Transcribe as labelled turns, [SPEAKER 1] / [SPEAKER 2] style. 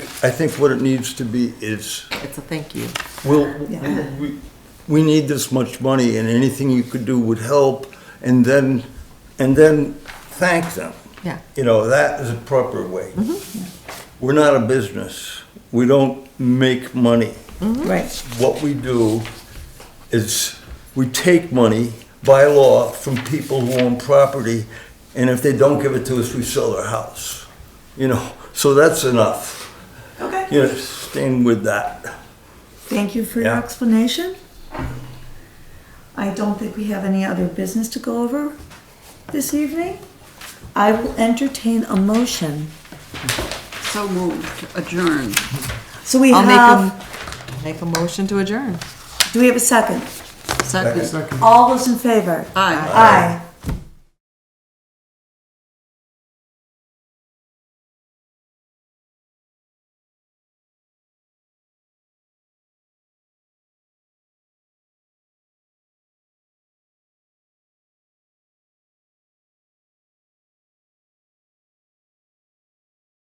[SPEAKER 1] I think what it needs to be is,
[SPEAKER 2] It's a thank you.
[SPEAKER 1] we'll, we, we need this much money and anything you could do would help, and then, and then thank them.
[SPEAKER 2] Yeah.
[SPEAKER 1] You know, that is a proper way. We're not a business. We don't make money.
[SPEAKER 3] Right,
[SPEAKER 1] What we do is we take money by law from people who own property, and if they don't give it to us, we sell their house. You know, so that's enough.
[SPEAKER 3] okay.
[SPEAKER 1] You know, staying with that.
[SPEAKER 3] Thank you for your
[SPEAKER 1] Yeah.
[SPEAKER 3] explanation. I don't think we have any other business to go over this evening. I will entertain a motion.
[SPEAKER 4] So moved, adjourned.
[SPEAKER 3] So we
[SPEAKER 2] I'll
[SPEAKER 3] have,
[SPEAKER 2] make a, make a motion to adjourn.
[SPEAKER 3] do we have a second?
[SPEAKER 2] Second.
[SPEAKER 3] All those in favor?
[SPEAKER 4] Aye.
[SPEAKER 3] Aye.